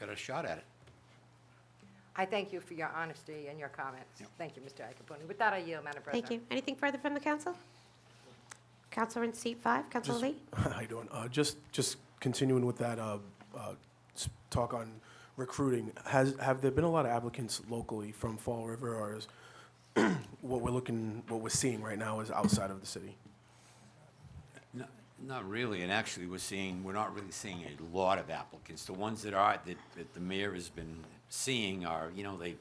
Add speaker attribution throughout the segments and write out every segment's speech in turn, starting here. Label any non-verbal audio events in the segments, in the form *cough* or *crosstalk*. Speaker 1: got a shot at it.
Speaker 2: I thank you for your honesty and your comments.
Speaker 1: Yep.
Speaker 2: Thank you, Mr. Iacoponi. With that, I yield, Madam President.
Speaker 3: Thank you. Anything further from the council? Counselor in seat five, Counselor Lee?
Speaker 4: *laughs* How you doing? Uh, just, just continuing with that, uh, uh, s- talk on recruiting. Has, have there been a lot of applicants locally from Fall River or is *clears throat* what we're looking, what we're seeing right now is outside of the city?
Speaker 1: No- Not really, and actually, we're seeing, we're not really seeing a lot of applicants. The ones that are, that, that the mayor has been seeing are, you know, they,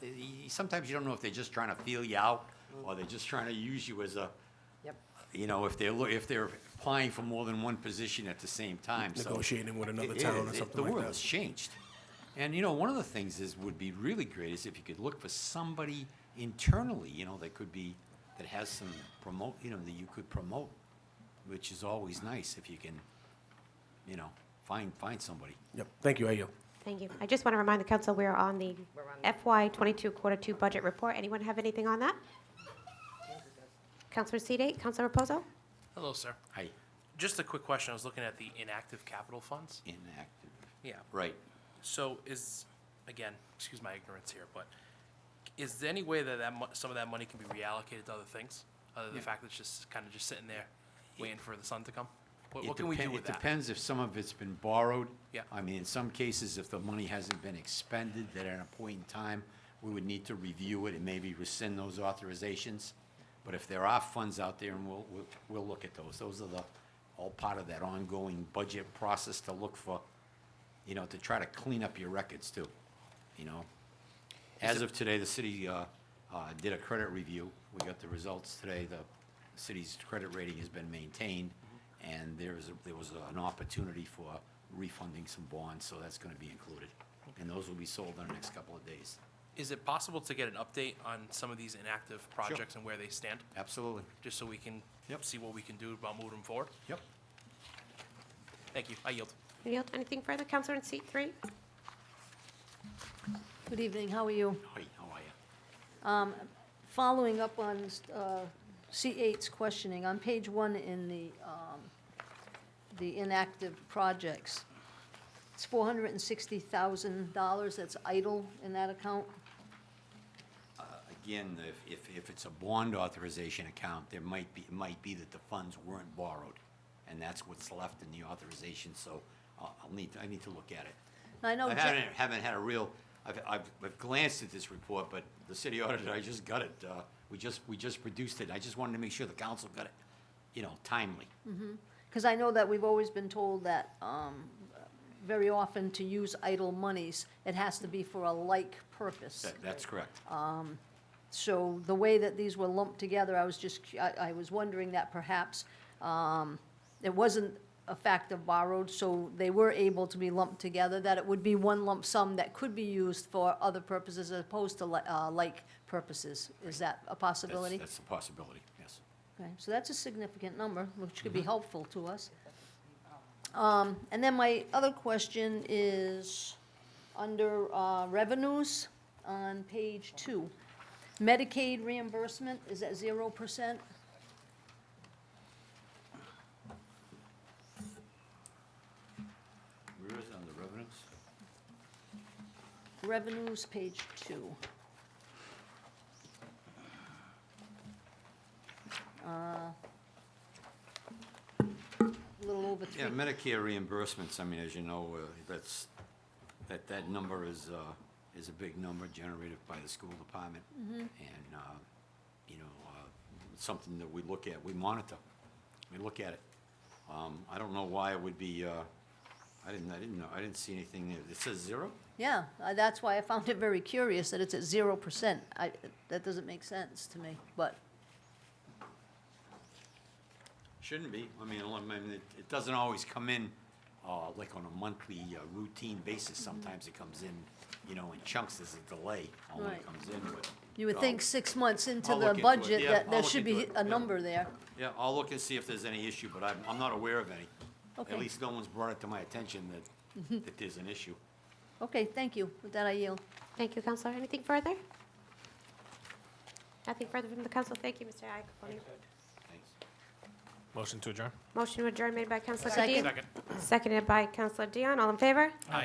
Speaker 1: they- sometimes you don't know if they're just trying to feel you out, or they're just trying to use you as a,
Speaker 2: Yep.
Speaker 1: you know, if they're, lo- if they're applying for more than one position at the same time, so.
Speaker 4: Negotiating with another
Speaker 1: It
Speaker 4: town
Speaker 1: is.
Speaker 4: or
Speaker 1: It-
Speaker 4: something
Speaker 1: The
Speaker 4: like
Speaker 1: world has
Speaker 4: that?
Speaker 1: changed. And, you know, one of the things is, would be really great is if you could look for somebody internally, you know, that could be, that has some promote, you know, that you could promote, which is always nice if you can, you know, find, find somebody.
Speaker 4: Yep, thank you, Ayo.
Speaker 3: Thank you. I just want to remind the council, we are on the
Speaker 2: We're on
Speaker 3: FY twenty-two quarter two budget report. Anyone have anything on that? Counselor in seat eight, Counselor Reposo?
Speaker 5: Hello, sir.
Speaker 1: Hi,
Speaker 5: Just a quick question. I was looking at the inactive capital funds.
Speaker 1: inactive,
Speaker 5: Yeah.
Speaker 1: right.
Speaker 5: So is, again, excuse my ignorance here, but is there any way that that mu- some of that money can be reallocated to other things? Other than the
Speaker 1: Yeah.
Speaker 5: fact that it's just kind of just sitting there waiting for the sun to come? What,
Speaker 1: It
Speaker 5: what can we do
Speaker 1: depen-
Speaker 5: with
Speaker 1: It
Speaker 5: that?
Speaker 1: depends if some of it's been borrowed.
Speaker 5: Yeah.
Speaker 1: I mean, in some cases, if the money hasn't been expended, that at a point in time, we would need to review it and maybe rescind those authorizations. But if there are funds out there, and we'll, we'll, we'll look at those. Those are the, all part of that ongoing budget process to look for, you know, to try to clean up your records too, you know? As of today, the city uh, uh, did a credit review. We got the results today. The city's credit rating has been maintained, and there is, a- there was an opportunity for refunding some bonds, so that's going to be included. And those will be sold in the next couple of days.
Speaker 5: Is it possible to get an update on some of these inactive projects and where they stand?
Speaker 1: Absolutely.
Speaker 5: Just so we can
Speaker 1: Yep.
Speaker 5: see what we can do about moving forward?
Speaker 1: Yep.
Speaker 5: Thank you. I yield.
Speaker 3: Yield, anything further? Counselor in seat three?
Speaker 6: Good evening, how are you?
Speaker 1: Hi, how are you?
Speaker 6: Following up on uh, C8's questioning, on page one in the, um, the inactive projects, it's $460,000 that's idle in that account.
Speaker 1: Again, if- if, if it's a bond authorization account, there might be, it might be that the funds weren't borrowed, and that's what's left in the authorization, so I'll I'll need, I need to look at it.
Speaker 6: And I know,
Speaker 1: I
Speaker 6: Ja-
Speaker 1: haven't, haven't had a real, I've, I've, I've glanced at this report, but the city auditor, I just got it, uh, we just, we just produced it, I just wanted to make sure the council got it, you know, timely.
Speaker 6: Mm. Because I know that we've always been told that um, very often to use idle monies, it has to be for a like purpose.
Speaker 1: That, that's correct.
Speaker 6: So the way that these were lumped together, I was just, cu- I, I was wondering that perhaps um, it wasn't a fact of borrowed, so they were able to be lumped together, that it would be one lump sum that could be used for other purposes as opposed to li- uh, like purposes. Is that a
Speaker 1: That's-
Speaker 6: possibility?
Speaker 1: That's a possibility, yes.
Speaker 6: Okay, so that's a significant number, which could be helpful to us. Um, And then my other question is, under uh, revenues on page two, Medicaid reimbursement is at zero percent?
Speaker 1: Where is it on the revenues?
Speaker 6: Revenues, page two. Uh, A little over three
Speaker 1: Yeah, Medicare reimbursements, I mean, as you know, uh, that's, that, that number is, uh, is a big number generated by the school department.
Speaker 6: Mm-hmm.
Speaker 1: And, uh, you know, uh, it's something that we look at, we monitor, we look at it. Um, I don't know why it would be, uh, I didn't, I didn't know, I didn't see anything there. It says zero?
Speaker 6: Yeah, uh, that's why I found it very curious that it's at zero percent. I, that doesn't make sense to me, but,
Speaker 1: Shouldn't be. I mean, I mean, it, it doesn't always come in, uh, like on a monthly, uh, routine basis. Sometimes it comes in, you know, in chunks, there's a delay on when it
Speaker 6: Right.
Speaker 1: comes in, but.
Speaker 6: you would think
Speaker 1: I'll-
Speaker 6: six months into
Speaker 1: I'll
Speaker 6: the
Speaker 1: look into it.
Speaker 6: budget
Speaker 1: Yeah,
Speaker 6: that
Speaker 1: I'll
Speaker 6: there
Speaker 1: look
Speaker 6: should
Speaker 1: into
Speaker 6: be
Speaker 1: it.
Speaker 6: a
Speaker 1: Yeah.
Speaker 6: number there.
Speaker 1: Yeah, I'll look and see if there's any issue, but I'm, I'm not aware of any.
Speaker 6: Okay.
Speaker 1: At least no one's brought it to my attention that, that there's an issue.
Speaker 6: Okay, thank you. With that, I yield.
Speaker 3: Thank you, Counselor. Anything further? Nothing further from the council. Thank you, Mr. Iacoponi.
Speaker 1: Thanks.
Speaker 7: Motion to adjourn.
Speaker 3: Motion to adjourn made by Counselor
Speaker 6: Second.
Speaker 3: Kadim. Seconded by Counselor Dion. All in favor?